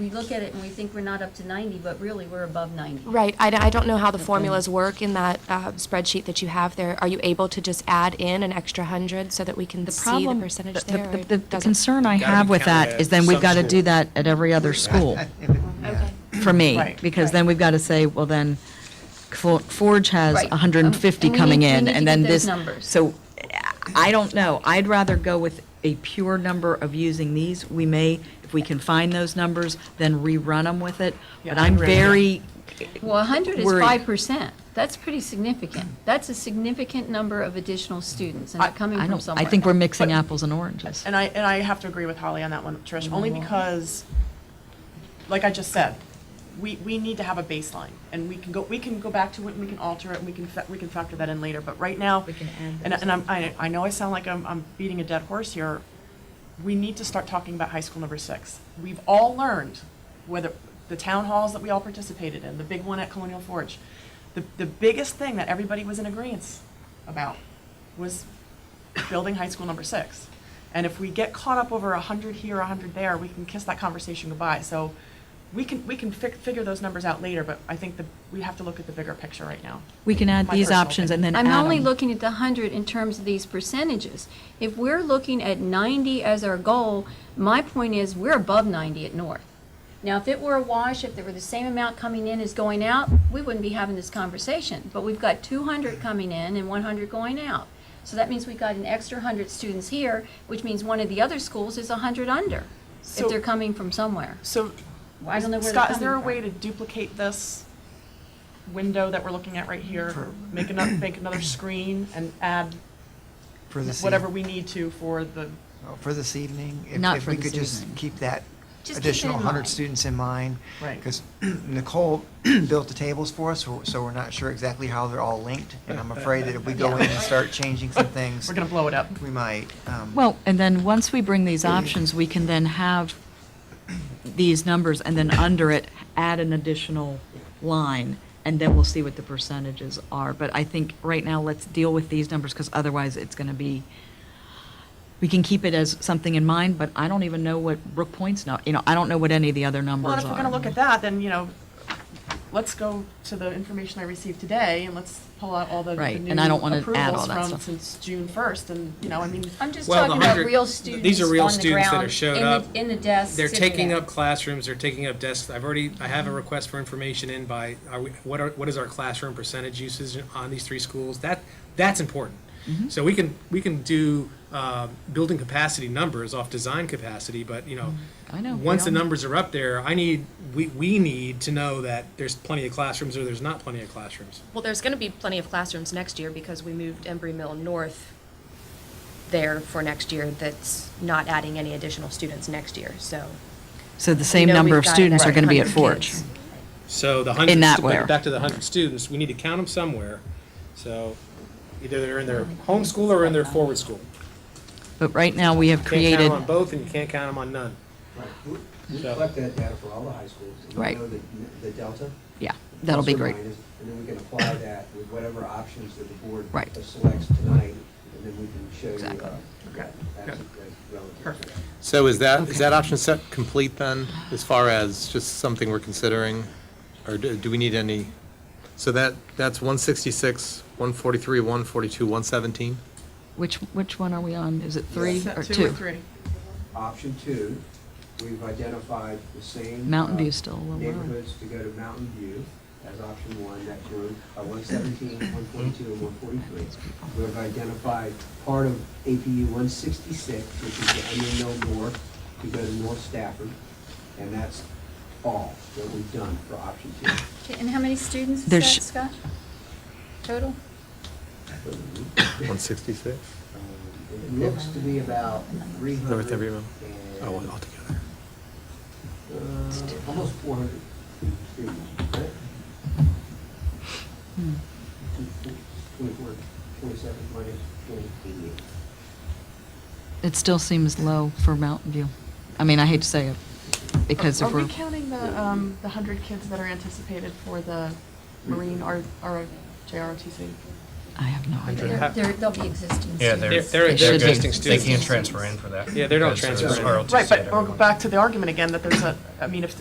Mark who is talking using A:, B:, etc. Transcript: A: we look at it and we think we're not up to 90, but really, we're above 90.
B: Right, I, don't- I don't know how the formulas work in that uh, spreadsheet that you have there. Are you able to just add in an extra hundred so that we can
C: The
B: see the
C: problem,
B: percentage
C: the-
B: there? or
C: the- the- the
B: doesn't-
C: concern I
D: Gotta be
C: have with
D: counted
C: that
D: at
C: is then we've
D: some
C: got to
D: school.
C: do that at every other school,
B: Okay.
C: for me.
E: Right.
C: Because then we've got to say, well, then Fo- Forge has
A: Right.
C: 150
A: Um, and we
C: coming
A: need- we
C: in,
A: need to
C: and then
A: get those
C: this.
A: numbers.
C: So I don't know. I'd rather go with a pure number of using these. We may, if we can find those numbers, then rerun them with it. But
E: Yeah,
C: I'm
E: rerun.
C: very,
A: Well, 100 is
C: Worried.
A: 5%. That's pretty significant. That's a significant number of additional students, and
C: I
A: they're coming
C: I
A: from
C: don't,
A: somewhere.
C: I think we're mixing
E: But-
C: apples and oranges.
E: And I, and I have to agree with Holly on that one, Trish, only because, like I just said, we, we need to have a baseline, and we can go, we can go back to it, and we can alter it, and we can, fa- we can factor that in later, but right now. We can add. And, and I'm, I, I know I sound like I'm, I'm beating a dead horse here, we need to start talking about high school number six. We've all learned, whether, the town halls that we all participated in, the big one at Colonial Forge, the, the biggest thing that everybody was in agreement about was building high school number six. And if we get caught up over a hundred here, a hundred there, we can kiss that conversation goodbye. So we can, we can fi- figure those numbers out later, but I think that we have to look at the bigger picture right now.
C: We can add
E: My
C: these
E: personal
C: options and then add
A: I'm only
C: them.
A: looking at the 100 in terms of these percentages. If we're looking at 90 as our goal, my point is, we're above 90 at North. Now, if it were a wash, if there were the same amount coming in as going out, we wouldn't be having this conversation. But we've got 200 coming in and 100 going out. So that means we got an extra 100 students here, which means one of the other schools is 100 under, if
E: So-
A: they're coming from somewhere.
E: So
A: I don't know where they're
E: Scott, is
A: coming
E: there a
A: from.
E: way to duplicate this window that we're looking at right here? Make another, make another screen and add
F: For this, eve-
E: whatever we need to for the,
F: oh, for this evening? if-
C: Not for
F: If we
C: this
F: could just
C: evening.
F: keep that
A: Just keep it
F: additional
A: in mind.
F: 100 students in mind.
E: Right.
F: Because Nicole built the tables for us, so- so we're not sure exactly how they're all linked. And I'm afraid that if we go in and start changing some things,
E: we're gonna blow it up.
F: we might. um,
C: Well, and then, once we bring these options, we can then have these numbers, and then under it, add an additional line, and then we'll see what the percentages are. But I think, right now, let's deal with these numbers, because otherwise, it's going to be, we can keep it as something in mind, but I don't even know what Brook Point's, nu- you know, I don't know what any of the other numbers are.
E: Well, and if we're gonna look at that, then, you know, let's go to the information I received today and let's pull out all the the
C: Right, and
E: new
C: I don't wanna add all
E: approvals
C: that
E: from
C: stuff.
E: since June first and, you know, I mean,
A: I'm just
D: Well, the
A: talking about
D: 100
A: real
D: th-
A: students
D: these are real
A: on the
D: students that
A: ground,
D: have showed
A: in the-
D: up.
A: In the desks.
D: They're
A: sitting
D: taking
A: there.
D: up classrooms, they're taking up desks. I've already, I have a request for information in by, are we, what are, what is our classroom percentage usage on these three schools? That, that's important.
C: Mm-hmm.
D: So we can, we can do, uh, building capacity numbers off design capacity, but, you know,
C: Mm, I know, we
D: Once the
C: all know.
D: numbers are up there, I need, we, we need to know that there's plenty of classrooms or there's not plenty of classrooms.
G: Well, there's going to be plenty of classrooms next year because we moved Embry Mill North there for next year. That's not adding any additional students next year, so.
C: So the
G: we
C: same
G: know
C: number
G: we've
C: of
G: got
C: students are going to be at
G: 100
C: Forge.
G: kids.
D: So the hundred,
C: that
D: stu-
C: where?
D: back to the hundred students, we need to count them somewhere. So either they're in their home school or in their forward school.
C: But right now, we have
D: Can't count
C: created,
D: 'em on both and you can't count them on none.
H: Right. We- We
D: So-
H: collect that data for all the high schools. and we
C: Right.
H: know the- The delta.
C: yeah, that'll be
H: plus or
C: great.
H: minus, And then we can apply that with whatever options that the board
C: Right.
H: selects tonight, and then we can show you.
C: Exactly.
H: uh, that- that's- that's relative to
E: Perfect.
H: that.
I: So is that, is that option set complete then, as far as just something we're considering? Or do do we need any, so that, that's 166, 143, 142, 117?
C: Which, which one are we on? Is it three
E: set
C: or
E: two or three.
H: Option two, we've identified the same.
C: Mountain
H: uh,
C: View's still a little lower.
H: Neighborhoods to go to Mountain View as option one, that's room, uh, one seventeen, one forty-two, and one forty-three. We've identified part of APU one sixty-six, which is the Onion Mill North, to go to North Stafford, and that's all that we've done for option two.
A: Okay, And how many students is that,
C: There's-
A: Scott? Total?
I: 166?
H: Um, It looks to be about three hundred.
I: North every mile. Oh, altogether.
H: Almost four hundred students, right? Twenty-four, twenty-seven minus twenty-eight.
C: It still seems low for Mountain View. I mean, I hate to say it, because
E: Are
C: if
E: we
C: we're,
E: counting the, um, the hundred kids that are anticipated for the Marine or, or JROTC?
C: I have no idea.
A: They're- they're- They'll be
J: Yeah,
A: existing students.
J: they're,
D: They're- they're-
J: they're existing
C: they're
D: existing
J: students. They can't
D: students.
J: transfer in for that.
D: Yeah, they're not
J: because
D: transferring.
J: it's ROTC
E: Right, but
J: and
E: we're
J: everyone.
E: back to the argument again that there's a, I mean, if,